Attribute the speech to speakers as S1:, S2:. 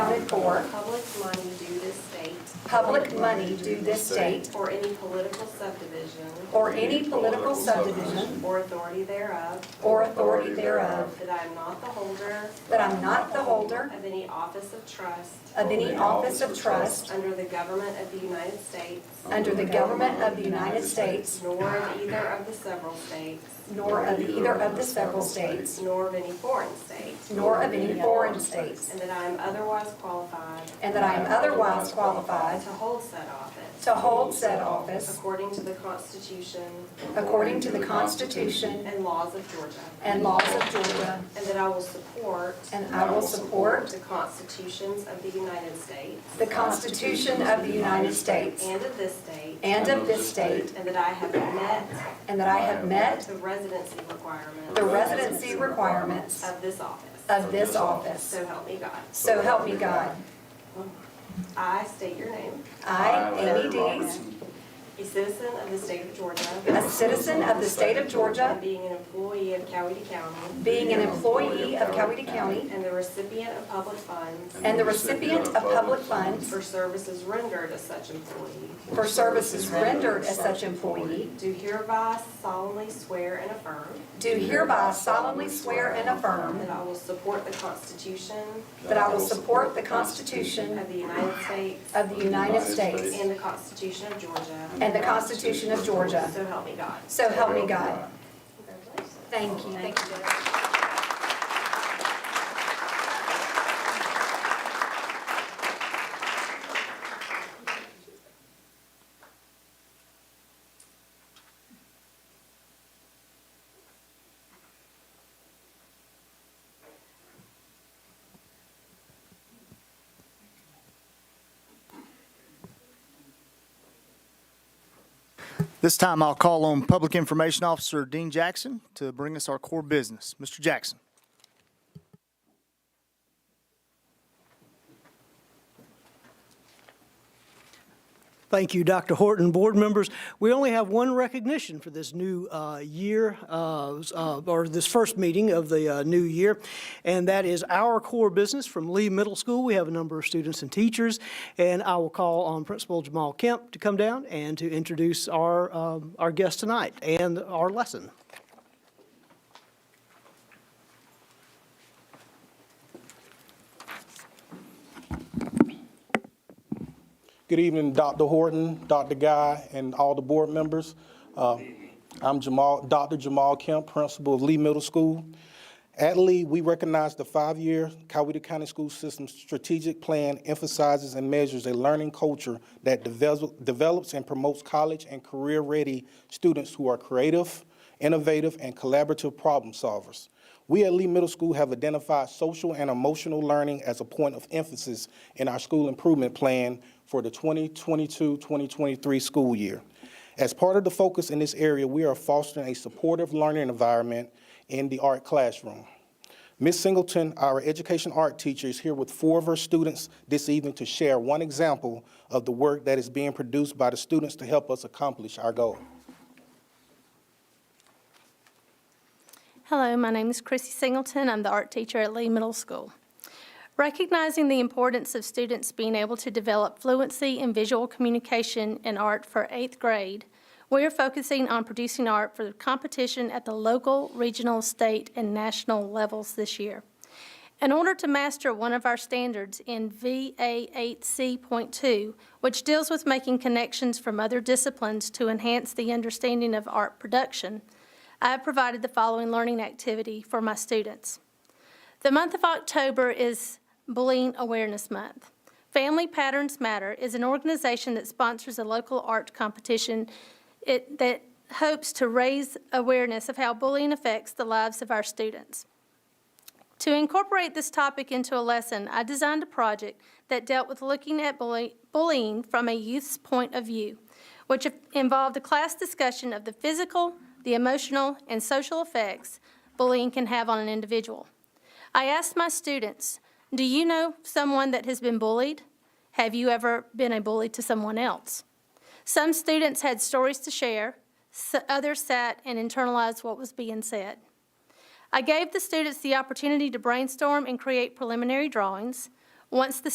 S1: for
S2: public money due this state
S1: public money due this state
S2: or any political subdivision
S1: or any political subdivision
S2: or authority thereof,
S1: or authority thereof,
S2: that I am not the holder
S1: that I'm not the holder
S2: of any office of trust
S1: of any office of trust
S2: under the government of the United States,
S1: under the government of the United States,
S2: nor of either of the several states,
S1: nor of either of the several states,
S2: nor of any foreign state,
S1: nor of any foreign states,
S2: and that I am otherwise qualified
S1: and that I am otherwise qualified
S2: to hold said office
S1: to hold said office
S2: according to the Constitution
S1: according to the Constitution
S2: and laws of Georgia,
S1: and laws of Georgia,
S2: and that I will support
S1: and I will support
S2: the constitutions of the United States
S1: the Constitution of the United States
S2: and of this state,
S1: and of this state,
S2: and that I have met
S1: and that I have met
S2: the residency requirements
S1: the residency requirements
S2: of this office.
S1: of this office.
S2: So help me God.
S1: So help me God.
S2: I state your name,
S1: I, Amy Dees,
S2: a citizen of the state of Georgia,
S1: a citizen of the state of Georgia,
S2: and being an employee of Coweta County,
S1: being an employee of Coweta County,
S2: and the recipient of public funds
S1: and the recipient of public funds
S2: for services rendered as such employee,
S1: for services rendered as such employee,
S2: do hereby solemnly swear and affirm
S1: do hereby solemnly swear and affirm
S2: that I will support the Constitution
S1: that I will support the Constitution
S2: Of the United States.
S1: of the United States
S2: And the Constitution of Georgia.
S1: and the Constitution of Georgia.
S2: So help me God.
S1: So help me God.
S2: Congratulations.
S1: Thank you.
S2: Thank you, Judge.
S3: This time I'll call on Public Information Officer Dean Jackson to bring us our core business. Mr. Jackson.
S4: Thank you, Dr. Horton, board members. We only have one recognition for this new uh, year, uh, uh, or this first meeting of the uh, new year, and that is our core business from Lee Middle School. We have a number of students and teachers, and I will call on Principal Jamal Kemp to come down and to introduce our, um, our guest tonight and our lesson.
S5: Good evening, Dr. Horton, Dr. Guy, and all the board members. Uh, I'm Jamal, Dr. Jamal Kemp, principal of Lee Middle School. At Lee, we recognize the five-year Coweta County School System Strategic Plan emphasizes and measures a learning culture that devel- develops and promotes college and career-ready students who are creative, innovative, and collaborative problem solvers. We at Lee Middle School have identified social and emotional learning as a point of emphasis in our school improvement plan for the 2022-2023 school year. As part of the focus in this area, we are fostering a supportive learning environment in the art classroom. Ms. Singleton, our education art teacher, is here with four of her students this evening to share one example of the work that is being produced by the students to help us accomplish our goal.
S6: Hello, my name is Chrissy Singleton. I'm the art teacher at Lee Middle School. Recognizing the importance of students being able to develop fluency in visual communication and art for eighth grade, we are focusing on producing art for competition at the local, regional, state, and national levels this year. In order to master one of our standards in VA8C.2, which deals with making connections from other disciplines to enhance the understanding of art production, I have provided the following learning activity for my students. The month of October is Bullying Awareness Month. Family Patterns Matter is an organization that sponsors a local art competition it- that hopes to raise awareness of how bullying affects the lives of our students. To incorporate this topic into a lesson, I designed a project that dealt with looking at bully- bullying from a youth's point of view, which involved a class discussion of the physical, the emotional, and social effects bullying can have on an individual. I asked my students, "Do you know someone that has been bullied? Have you ever been a bully to someone else?" Some students had stories to share, s- others sat and internalized what was being said. I gave the students the opportunity to brainstorm and create preliminary drawings. Once the